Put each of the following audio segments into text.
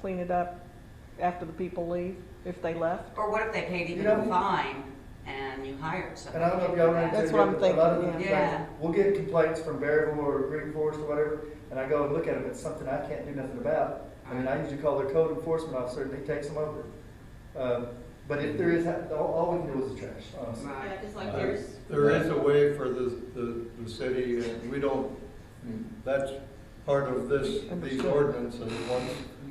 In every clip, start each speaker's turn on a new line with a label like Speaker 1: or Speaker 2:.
Speaker 1: clean it up after the people leave, if they left?
Speaker 2: Or what if they paid even
Speaker 3: You know-
Speaker 2: a fine and you hired
Speaker 3: And I
Speaker 2: somebody?
Speaker 3: don't know
Speaker 2: to
Speaker 3: if
Speaker 2: do
Speaker 3: y'all run into.
Speaker 2: that?
Speaker 1: That's what I'm
Speaker 3: a lot of
Speaker 1: thinking,
Speaker 3: the
Speaker 2: yeah.
Speaker 3: things- We'll get complaints from Berryville or Green Forest or whatever, and I go and look at them, it's something I can't do nothing about. I mean, I usually call their code enforcement officer and he takes them over. Um, But if there is, all, all we can do is trash, honestly.
Speaker 2: Right.
Speaker 4: Oh, Yeah, just like yours.
Speaker 5: There is a way for the, the, the city, and we don't, that's part of this, these
Speaker 1: Understood.
Speaker 5: ordinances. Once,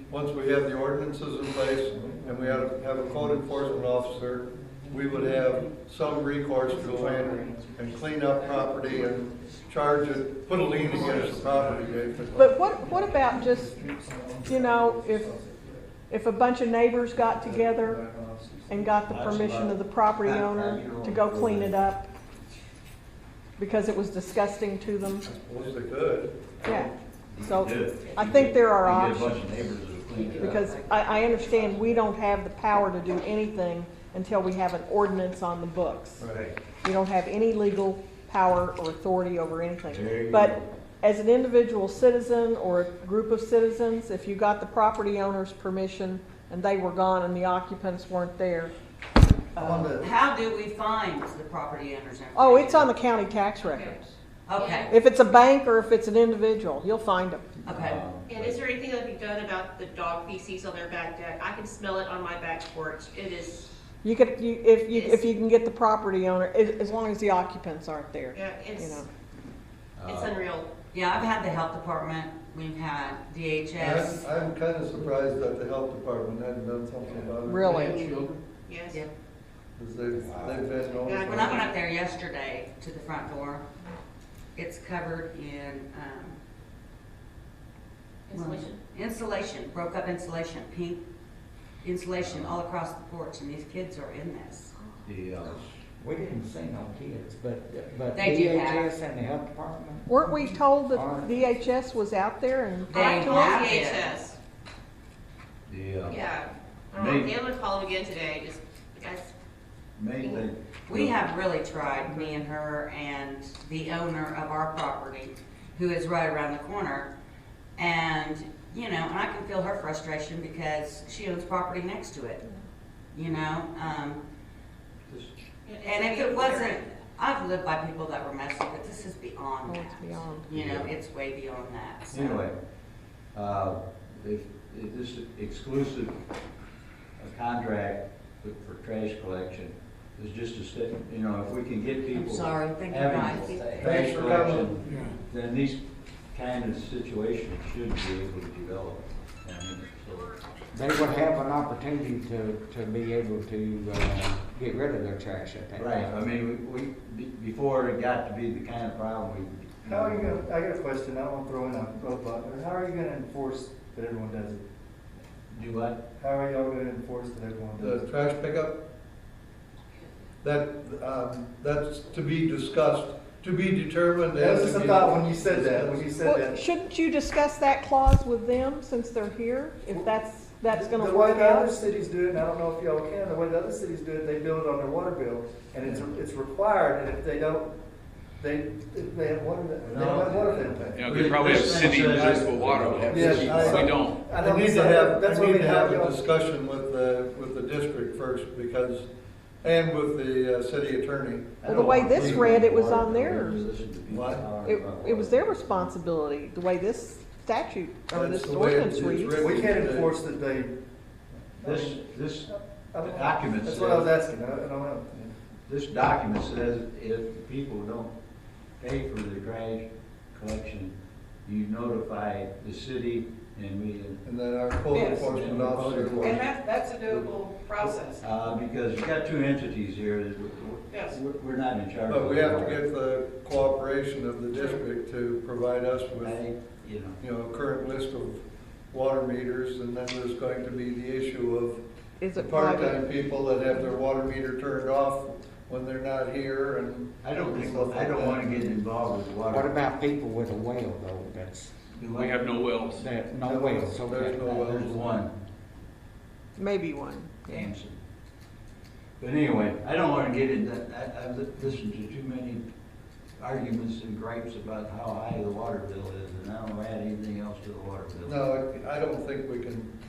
Speaker 5: once we have the ordinances in place and we have, have a code enforcement officer, we would have some recourse to go in and clean up property and charge it, put a lien against the property. if it-
Speaker 1: But what, what about just, you know, if, if a bunch of neighbors got together and got the permission of the property owner to go clean it up? Because it was disgusting to them,
Speaker 5: Suppose they could.
Speaker 1: yeah. So
Speaker 6: Good.
Speaker 1: I think there are
Speaker 6: You get a
Speaker 1: options,
Speaker 6: bunch of neighbors that'll clean it up.
Speaker 1: because I, I understand we don't have the power to do anything until we have an ordinance on the books.
Speaker 5: Right.
Speaker 1: We don't have any legal power or authority over anything.
Speaker 6: you
Speaker 1: But
Speaker 6: go.
Speaker 1: as an individual citizen or a group of citizens, if you got the property owner's permission and they were gone and the occupants weren't there,
Speaker 3: On the,
Speaker 2: How do we find the property owners?
Speaker 1: oh, it's on the county tax record.
Speaker 2: Okay,
Speaker 1: If it's a bank or if it's an individual, you'll find them.
Speaker 2: okay.
Speaker 4: And is there anything that can be done about the dog feces on their back deck? I can smell it on my back porch. It is,
Speaker 1: You could, you, if you, if you can get the property owner, as, as long as the occupants aren't there,
Speaker 4: yeah,
Speaker 1: you
Speaker 4: it's,
Speaker 1: know.
Speaker 4: it's unreal.
Speaker 2: Yeah, I've had the health department, we've had DHS.
Speaker 5: I'm, I'm kinda surprised that the health department hadn't done something about it.
Speaker 1: Really?
Speaker 4: Yes.
Speaker 2: Yep.
Speaker 5: Because they've, they've been. all-
Speaker 4: Yeah,
Speaker 2: When I went up there yesterday to the front door, it's covered in, um,
Speaker 4: Insulation.
Speaker 2: Insulation, broke up insulation, pink insulation all across the porch, and these kids are in this.
Speaker 6: The, uh, we didn't say no kids, but, but
Speaker 2: They do have.
Speaker 6: DHS and the health department,
Speaker 1: Weren't we told that DHS was out there and
Speaker 2: They
Speaker 4: I called
Speaker 2: have it.
Speaker 4: DHS.
Speaker 6: the, uh,
Speaker 4: Yeah. I don't know,
Speaker 6: Maybe.
Speaker 4: I'm gonna call them again today, just, guys,
Speaker 6: main thing.
Speaker 2: We have really tried, me and her and the owner of our property, who is right around the corner. And, you know, and I can feel her frustration because she owns property next to it, you know? Um, and if it wasn't, I've lived by people that were messy, but this is beyond
Speaker 1: Oh,
Speaker 2: that.
Speaker 1: it's beyond.
Speaker 2: You know, it's way beyond that, so.
Speaker 6: Anyway, uh, if, if this exclusive contract for trash collection is just a step, you know, if we can get people.
Speaker 2: I'm sorry, thank you
Speaker 6: having
Speaker 2: guys.
Speaker 6: Trash
Speaker 5: Thanks for coming.
Speaker 6: collection, then these kind of situations should be able to develop. I mean, so-
Speaker 7: They would have an opportunity to, to be able to, uh, get rid of their trash at that time.
Speaker 6: Right, I mean, we, we- be- before it got to be the kind of problem we.
Speaker 3: how are you gonna, I got a question, I won't throw in a roadblock, how are you gonna enforce that everyone does it?
Speaker 6: Do what?
Speaker 3: How are y'all gonna enforce that everyone does
Speaker 5: The
Speaker 3: it?
Speaker 5: trash pickup? That, um, that's to be discussed, to be determined.
Speaker 3: That
Speaker 5: and
Speaker 3: was just
Speaker 5: to
Speaker 3: a
Speaker 5: be
Speaker 3: thought when you said that, when you
Speaker 5: discussed.
Speaker 3: said
Speaker 1: Well,
Speaker 3: that.
Speaker 1: shouldn't you discuss that clause with them since they're here? If that's, that's gonna
Speaker 3: The way
Speaker 1: work
Speaker 3: the other
Speaker 1: out?
Speaker 3: cities do it, and I don't know if y'all can, the way the other cities do it, they bill it on their water bill, and it's, it's required, and if they don't, they, if they have water, they don't have water, they don't pay.
Speaker 8: You know, they probably have city municipal water, but
Speaker 5: Yes,
Speaker 8: we
Speaker 5: I-
Speaker 8: don't.
Speaker 3: I
Speaker 5: I
Speaker 3: know
Speaker 5: need
Speaker 3: we-
Speaker 5: to have,
Speaker 3: that's
Speaker 5: I
Speaker 3: what
Speaker 5: need
Speaker 3: we
Speaker 5: to
Speaker 3: have,
Speaker 5: have a
Speaker 3: y'all.
Speaker 5: discussion with the, with the district first because, and with the uh, city attorney.
Speaker 1: Well, the way this read, it was on their-
Speaker 5: What?
Speaker 1: It, it was their responsibility, the way this statute or
Speaker 5: That's
Speaker 1: this
Speaker 5: the way
Speaker 1: ordinance
Speaker 5: it's
Speaker 1: reads.
Speaker 5: written.
Speaker 3: We can't enforce that they.
Speaker 6: This, this,
Speaker 3: I don't know.
Speaker 6: Documents.
Speaker 3: That's what I was asking, I I don't know.
Speaker 6: this document says if people don't pay for the trash collection, you notify the city and we,
Speaker 5: And then our code
Speaker 9: Yes.
Speaker 5: enforcement officer. will-
Speaker 9: And that, that's a doable process.
Speaker 6: uh, because you got two entities here that we-
Speaker 9: Yes.
Speaker 6: we're, we're not in charge.
Speaker 5: But
Speaker 6: of
Speaker 5: we have to
Speaker 6: all.
Speaker 5: get the cooperation of the district to provide us with
Speaker 6: I think, you know,
Speaker 5: you know, a current list of water meters, and then there's going to be the issue of
Speaker 1: Is
Speaker 5: the
Speaker 1: it private?
Speaker 5: part-time people that have their water meter turned off when they're not here, and
Speaker 6: I don't think, I don't wanna get involved with water.
Speaker 7: What about people with a well though, that's,
Speaker 8: We have no wells.
Speaker 7: that, no wells, okay?
Speaker 5: There's no wells.
Speaker 6: There's one.
Speaker 1: Maybe one. yeah.
Speaker 6: Damson. But anyway, I don't wanna get into, that. I, I've li- listened to too many arguments and gripes about how high the water bill is, and I don't wanna add anything else to the water bill.
Speaker 5: no, I don't think we can